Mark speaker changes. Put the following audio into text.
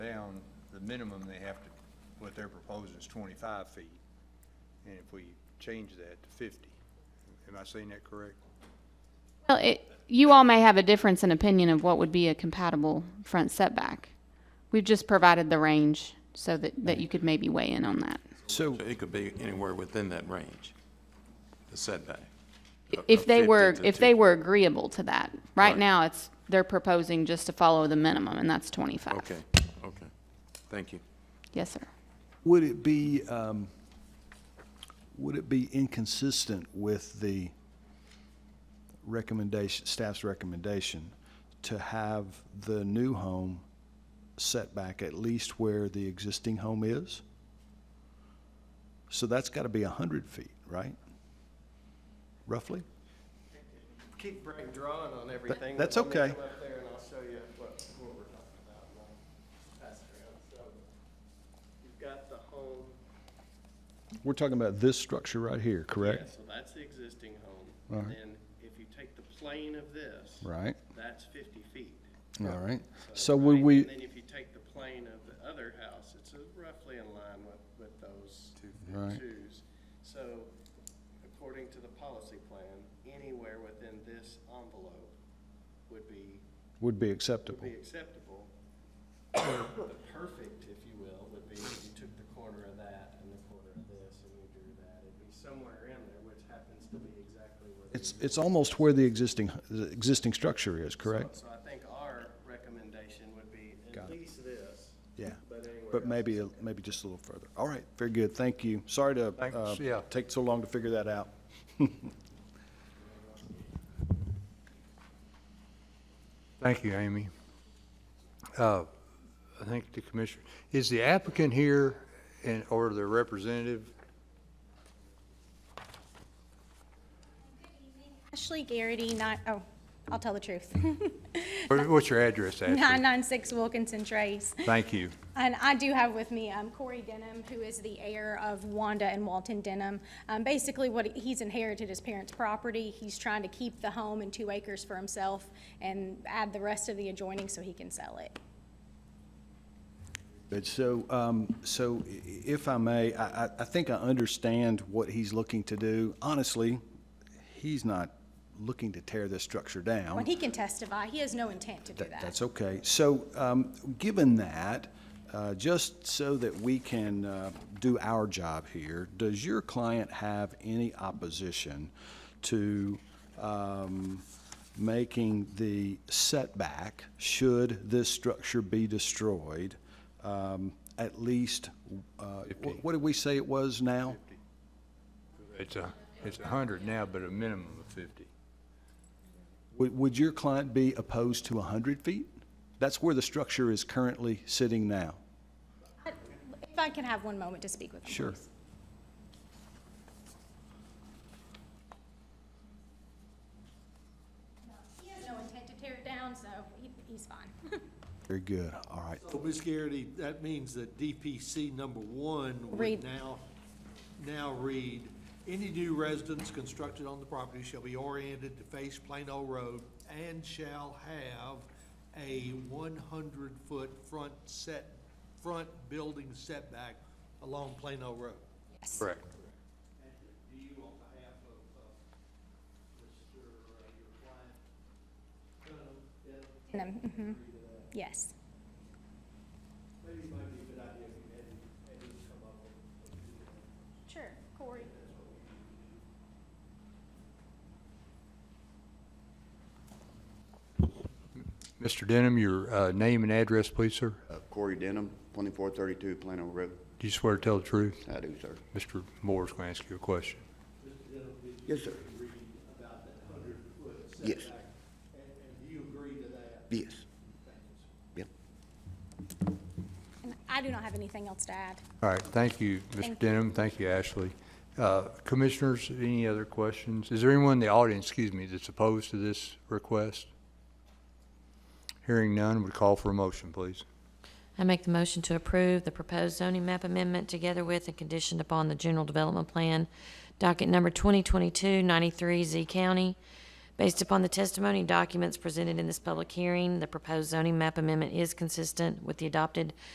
Speaker 1: down, the minimum they have to, what they're proposing is twenty-five feet. And if we change that to fifty, am I saying that correct?
Speaker 2: Well, it, you all may have a difference in opinion of what would be a compatible front setback. We've just provided the range so that, that you could maybe weigh in on that.
Speaker 3: So it could be anywhere within that range, the setback. of-
Speaker 2: If
Speaker 3: of
Speaker 2: they
Speaker 3: 50
Speaker 2: were,
Speaker 3: to
Speaker 2: if
Speaker 3: two-
Speaker 2: they were agreeable to that, right
Speaker 3: Right.
Speaker 2: now, it's, they're proposing just to follow the minimum, and that's twenty-five.
Speaker 3: Okay, okay. Thank you.
Speaker 2: Yes, sir.
Speaker 4: Would it be, um, would it be inconsistent with the recommendation, staff's recommendation, to have the new home set back at least where the existing home is? So that's got to be 100 feet, right? Roughly?
Speaker 5: keep bra- drawing on everything.
Speaker 4: that's
Speaker 5: Let me
Speaker 4: okay.
Speaker 5: Come up there and I'll show you what, what we're talking about. and I'll Pass it around. So you've got the home.
Speaker 4: We're talking about this structure right here,
Speaker 5: Yeah,
Speaker 4: correct?
Speaker 5: So that's the existing home.
Speaker 4: All
Speaker 5: And
Speaker 4: right.
Speaker 5: then if you take the plane of this.
Speaker 4: Right,
Speaker 5: That's fifty feet.
Speaker 4: all right. So
Speaker 5: right?
Speaker 4: would we,
Speaker 5: And then if you take the plane of the other house, it's uh, roughly in line with, with those
Speaker 4: Right.
Speaker 5: twos. So according to the policy plan, anywhere within this envelope would be
Speaker 4: would be
Speaker 5: would
Speaker 4: acceptable?
Speaker 5: be acceptable. The perfect, if you will, would be if you took the corner of that and the corner of this and you drew that. It'd be somewhere in there, which happens to be exactly where. the
Speaker 4: It's, it's almost where the existing, the existing structure is,
Speaker 5: So-
Speaker 4: correct?
Speaker 5: So I think our recommendation would be
Speaker 4: Got
Speaker 5: at
Speaker 4: it.
Speaker 5: least this.
Speaker 4: Yeah.
Speaker 5: But anywhere
Speaker 4: But
Speaker 5: else.
Speaker 4: maybe, a- maybe just a little further. All right, very good, thank you. Sorry to, uh,
Speaker 6: Thanks, yeah.
Speaker 4: take so long to figure that out.
Speaker 6: Thank you, Amy. Uh, I think the commissioner, is the applicant here and, or their representative?
Speaker 7: Ashley Garrity, not, oh, I'll tell the truth.
Speaker 6: What- What's your address, Ashley?
Speaker 7: 996 Wilkinson Trace.
Speaker 6: Thank you.
Speaker 7: And I do have with me um, Corey Denham, who is the heir of Wanda and Walton Denham. Um, Basically, what, he- he's inherited his parents' property. He's trying to keep the home and two acres for himself and add the rest of the adjoining so he can sell it.
Speaker 4: But so, um, so i- if I may, I, I, I think I understand what he's looking to do. Honestly, he's not looking to tear this structure down.
Speaker 7: When he can testify, he has no intent to do
Speaker 4: That-
Speaker 7: that.
Speaker 4: That's okay. So, um, given that, uh, just so that we can, uh, do our job here, does your client have any opposition to, um, making the setback, should this structure be destroyed, um, at least, uh, wh- what did we say it was now?
Speaker 6: It's a, it's a hundred now, but a minimum of fifty.
Speaker 4: Would, would your client be opposed to hundred feet? That's where the structure is currently sitting now.
Speaker 7: If I can have one moment to speak with him,
Speaker 4: Sure.
Speaker 7: please. He has no intent to tear it down, so he- he's fine.
Speaker 4: Very good. All right.
Speaker 8: So, Ms. Garrity, that means that DPC number one
Speaker 7: Read.
Speaker 8: would now, now read, any new residence constructed on the property shall be oriented to face Plano Road and shall have a one hundred foot front set, front building setback along Plano Road.
Speaker 7: Yes.
Speaker 6: Correct.
Speaker 8: Do you on behalf of, Mr. your client,
Speaker 7: And, um, mhm. Yes.
Speaker 8: maybe it might be a good idea if you had, had him come up with,
Speaker 7: Sure, Corey.
Speaker 6: Mr. Denham, your uh, name and address, please, sir?
Speaker 9: Uh, Corey Denham, 2432 Plano Road.
Speaker 6: Do you swear to tell the truth?
Speaker 9: I do, sir.
Speaker 6: Mr. Moore's going to ask you a question.
Speaker 9: Yes, sir.
Speaker 8: about that hundred foot
Speaker 9: Yes.
Speaker 8: setback. And, and do you agree to that?
Speaker 9: Yes. Yep.
Speaker 7: And I do not have anything else to add.
Speaker 6: All right, thank you, Mr.
Speaker 7: Thank
Speaker 6: Denham, thank you, Ashley. Uh, Commissioners, any other questions? Is there anyone in the audience, excuse me, that's opposed to this request? Hearing none, would call for a motion, please.
Speaker 10: I make the motion to approve the proposed zoning map amendment together with and conditioned upon the general development plan, docket number 2022-93 Z County. Based upon the testimony and documents presented in this public hearing, the proposed zoning map amendment is consistent with the adopted